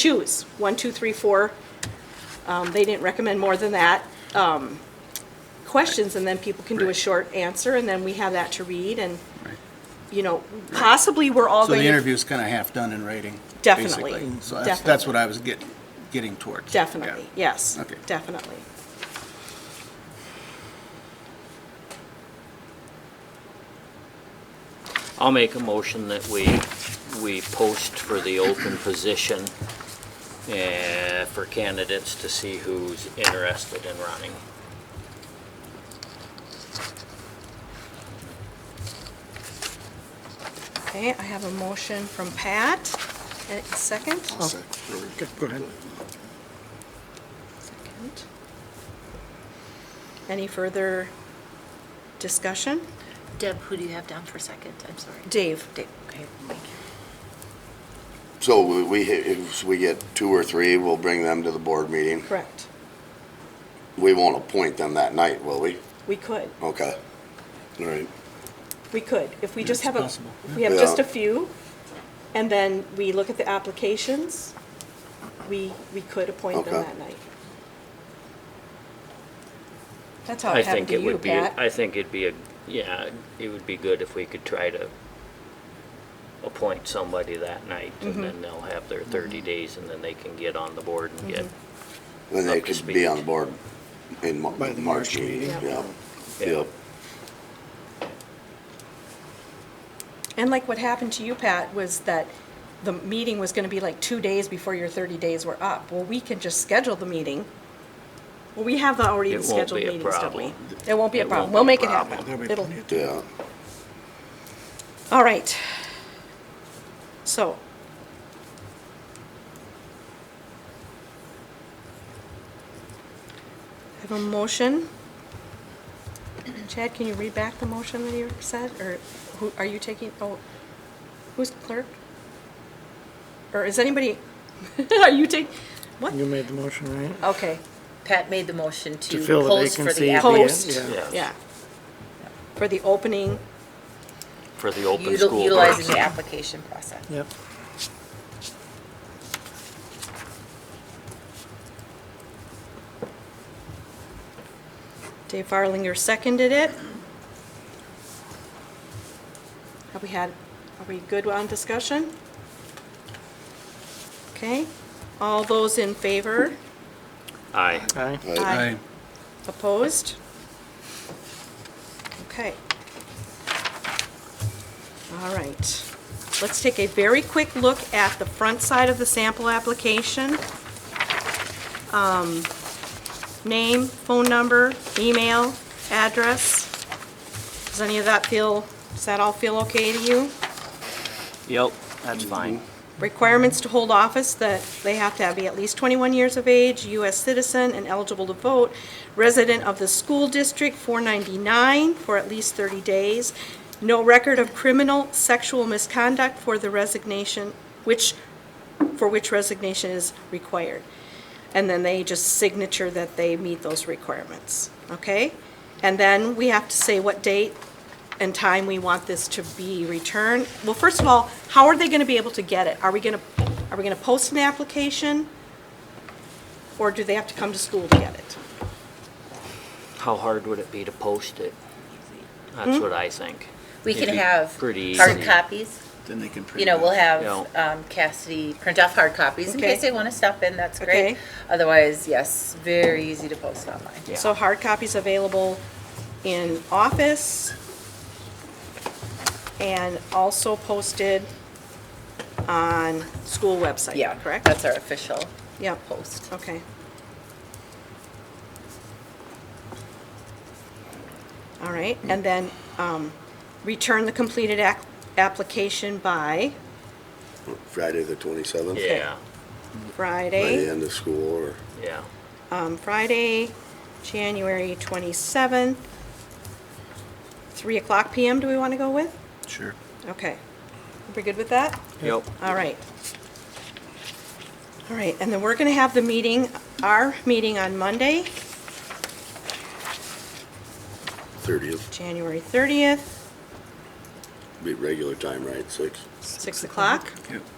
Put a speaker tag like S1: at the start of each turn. S1: choose, one, two, three, four. Um, They didn't recommend more than that. um, Questions, and then people can do a
S2: Right.
S1: short answer, and then we have that to read, and,
S2: Right.
S1: you know, possibly we're all
S2: So
S1: going
S2: the
S1: to.
S2: interview's kind of half done in writing.
S1: Definitely,
S2: basically. So that's, that's what I was getting, getting towards.
S1: Definitely,
S2: Yeah.
S1: yes,
S2: Okay.
S1: definitely.
S3: I'll make a motion that we, we post for the open position eh, for candidates to see who's interested in running.
S1: Okay, I have a motion from Pat. A Second?
S4: Go ahead.
S1: Second. Any further discussion?
S5: Deb, who do you have down for second? I'm sorry.
S1: Dave?
S5: Dave, okay, thank you.
S6: So we- we, if we get two or three, we'll bring them to the board meeting.
S1: Correct.
S6: We won't appoint them that night, will we?
S1: We could.
S6: Okay. All right.
S1: We could, if we just
S2: It's
S1: have a,
S2: possible,
S1: if we have just a
S6: Yeah.
S1: few, and then we look at the applications, we, we could appoint them
S6: Okay.
S1: that night. That's how
S3: I
S1: it happened
S3: think
S1: to
S3: it
S1: Oh, you,
S3: would be, I
S1: Pat.
S3: think it'd be, a yeah, it would be good if we could try to appoint somebody that night, and then they'll have their 30 days, and then they can get on the board and get,
S6: Then they
S3: Up to
S6: could be on
S3: speed.
S6: board in Mar-
S4: By the
S6: March
S4: March
S6: meeting,
S1: meeting.
S6: yeah.
S3: Yeah.
S6: Yep.
S1: And like what happened to you, Pat, was that the meeting was gonna be like two days before your thirty days were up. Well, we can just schedule the meeting. Well, we have the already
S3: It won't
S1: scheduled
S3: be a
S1: meetings, don't we?
S3: problem.
S1: It won't be a
S3: It
S1: problem.
S3: won't
S1: We'll
S3: be
S1: make it
S3: a problem.
S4: There'll
S1: happen.
S4: be
S1: It'll,
S4: plenty of time.
S6: Yeah.
S1: all right. So, I have a motion. Chad, can you read back the motion that you said, or who, are you taking, oh, who's clerk? Or is anybody, are you taking, what?
S4: You made the motion, right?
S1: Okay,
S5: Pat made the motion
S4: To
S5: to
S4: fill the
S5: post for
S4: vacancy.
S5: the
S4: at the end,
S5: applicant.
S1: Post.
S4: yeah.
S3: yeah,
S1: yeah. For the opening,
S3: for the open
S5: Util-
S3: school.
S5: Utilizing
S3: board.
S5: the application process.
S4: Yep.
S1: Dave Farlinger seconded it. Have we had, are we good on discussion? Okay, all those in favor,
S3: Aye.
S4: Aye.
S6: Right.
S1: Aye. opposed? Okay. All right, let's take a very quick look at the front side of the sample application. Um, Name, phone number, email, address. Does any of that feel, does that all feel okay to you?
S3: Yep, mm-hmm. that's fine.
S1: Requirements to hold office, that they have to be at least 21 years of age, U.S. citizen and eligible to vote, resident of the school district 499 for at least 30 days, no record of criminal sexual misconduct for the resignation, which, for which resignation is required. And then they just signature that they meet those requirements, okay? And then we have to say what date and time we want this to be returned. Well, first of all, how are they gonna be able to get it? Are we gonna, are we gonna post an application? Or do they have to come to school to get it?
S3: How hard would it be to post it? That's what I think.
S5: We can
S3: It'd be
S5: have
S3: pretty
S5: hard
S3: easy.
S5: copies.
S2: Then they can print
S5: You know, we'll have
S3: Yeah.
S5: um, Cassidy print off hard copies in
S1: Okay.
S5: case they want to stop in, that's
S1: Okay.
S5: great. Otherwise, yes, very easy to post online.
S3: Yeah.
S1: So hard copies available in office and also posted on school website,
S5: Yeah,
S1: correct?
S5: that's our official
S1: Yep,
S5: post.
S1: okay. All right, and then, um, return the completed ac- application by
S6: Friday, the twenty-seventh?
S3: Yeah,
S6: By the
S1: Friday,
S6: end of school or,
S3: yeah.
S1: um, Friday, January twenty-seventh, three o'clock PM, do we wanna go with?
S2: Sure.
S1: Okay, we good with that?
S3: Yep.
S1: All right. All right, and then we're going to have the meeting, our meeting on Monday,
S6: thirtieth,
S1: January 30th,
S6: be regular time, right, six?
S1: 6 o'clock.
S2: Yep.